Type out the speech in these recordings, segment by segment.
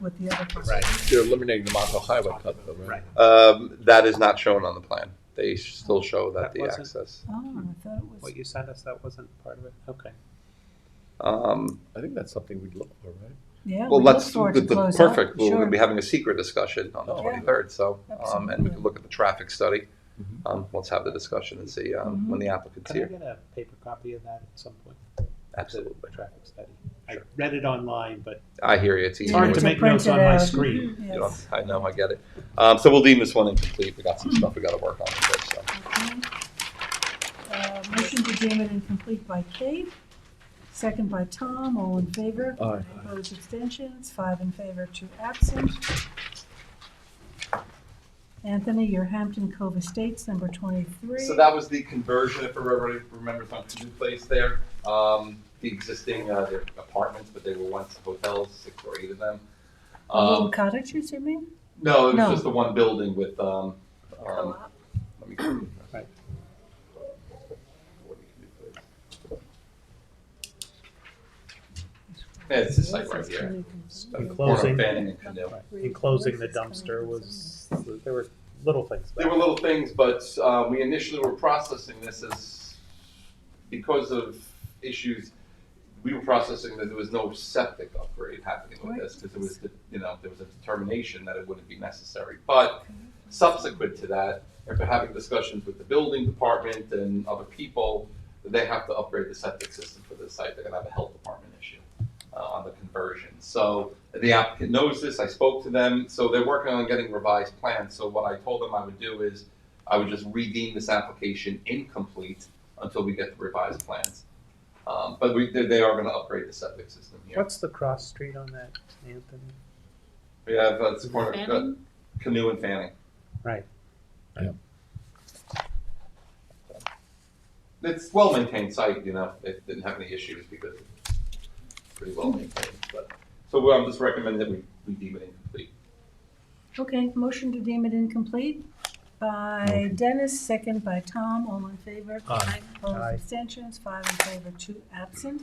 with the other parcel. Right. They're eliminating the Montauk Highway cut though, right? Right. Um, that is not shown on the plan. They still show that That the wasn't- access. Oh, I thought it was, What you sent us, that wasn't part of it? Okay. Um, I think that's something we'd look for, right? yeah. well, we look let's, forward to the- the- close up, perfect, we're sure. gonna be having a secret discussion on the Oh, yeah. twenty-third, so, um, and we can look at the traffic study. Mhm. Um, let's have the discussion and see, Mm-hmm. um, when the applicant's Can I here. get a paper copy of that at some point? The Absolutely. traffic study. I Sure. read it online, but I hear you, it's You it's easy. need hard to to make print notes it on my out. screen. You know, Yes. Mm-hmm. I know, I get it. Um, so we'll deem this one incomplete, we got some stuff we gotta work on first, so. Okay. Uh, Motion to deem it incomplete by Kate, second by Tom, all in favor. Aye. Opposed, abstentions, five in favor, two absent. Anthony, your Hampton Cove Estates, number twenty-three. So that was the conversion, if everybody remembers, on Canoe Place there. Um, the existing, uh, they're apartments, but they were once hotels, six or eight of them. A Little Um, cottages, you mean? no, it No. was just the one building with, um, um, Co-op. let me. Canoe Right. Place. Yeah, it's this site right here. In Corner of closing- Fanning and Canoe. In closing the dumpster was, there were little things. There were little things, but uh, we initially were processing this as, because of issues, we were processing that there was no septic upgrade happening with this, because it was, the- you know, there was a determination that it wouldn't be necessary. But subsequent to that, after having discussions with the building department and other people, they have to upgrade the septic system for this site, they're gonna have a health department issue uh, on the conversion. So the applicant knows this, I spoke to them, so they're working on getting revised plans, so what I told them I would do is I would just redeem this application incomplete until we get the revised plans. Um, but we, they, they are gonna upgrade the septic system here. What's the cross street on that, Anthony? We have, uh, it's corner, uh, Canoe and Fanning. Right. Yeah. It's well-maintained site, you know, it didn't have any issues because it's pretty well-maintained, but, so I'm just recommending that we, we deem it incomplete. Okay, motion to deem it incomplete by Dennis, second by Tom, all in favor. Aye. Opposed, Aye. abstentions, five in favor, two absent.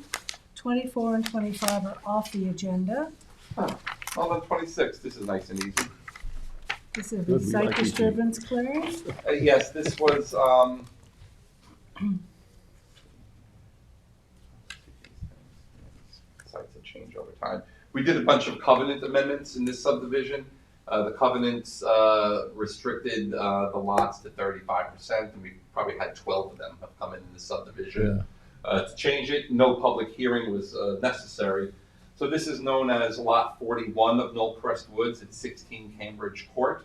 Twenty-four and twenty-five are off the agenda. Well, then twenty-six, this is nice and easy. This is the Good, we site like these disturbance clearing. Uh, yes, this was, um. Sites will change over time. We did a bunch of covenant amendments in this subdivision. Uh, the covenants, uh, restricted, uh, the lots to thirty-five percent, and we probably had twelve of them have come in this subdivision. Uh, to change it, no public hearing was, uh, necessary. So this is known as Lot forty-one of Knoll Crest Woods at sixteen Cambridge Court.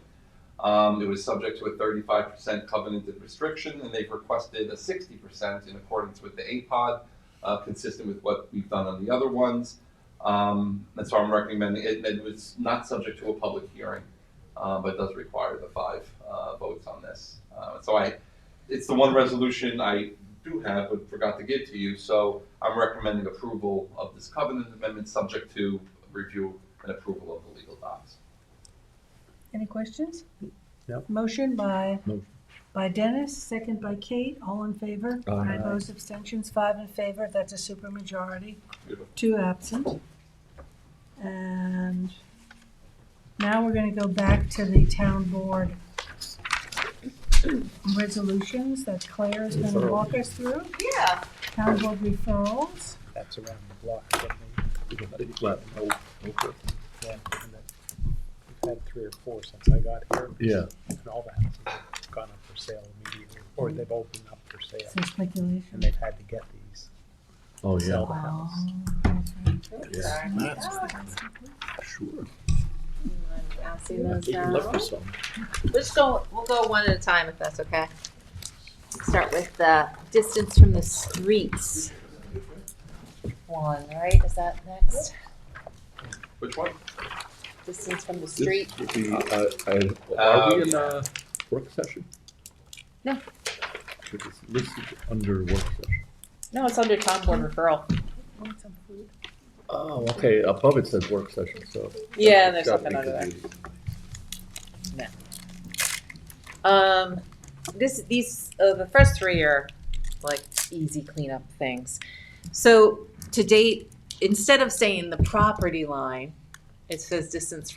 Um, it was subject to a thirty-five percent covenanted restriction, and they've requested a sixty percent in accordance with the APOD, uh, consistent with what we've done on the other ones. Um, and so I'm recommending it, and it's not subject to a public hearing, uh, but does require the five, uh, votes on this. Uh, so I, it's the one resolution I do have, but forgot to give to you, so I'm recommending approval of this covenant amendment, subject to review and approval of the legal docs. Any questions? No. Motion by, Motion. by Dennis, second by Kate, all in favor. Aye. Opposed, abstentions, five in favor, that's a supermajority. Beautiful. Two absent. And now we're gonna go back to the town board resolutions that Claire is gonna walk us through. Yeah, Town board referrals. That's around the block from me. Well, oh, okay. Yeah, and that- We've had three or four since I got here. Yeah. And all the houses have gone up for sale immediately, or they've opened up for sale, So and speculation. they've had to get these. Oh, yeah, Sell the house. Yes. sorry. Oh, sure. I'll see I those think you left now. for some. Let's go, we'll go one at a time if that's okay. Start with the distance from the streets. One, right, is that next? Which one? Distance from the This street, would be, uh, I- Are we in a work session? No. Which is listed under work session. no, it's under town board referral. Oh, okay, above it says work session, so. Yeah, there's It's gotta something be under there. confusing. Um, this, these, uh, the first three are like easy cleanup things. So to date, instead of saying the property line, It says distance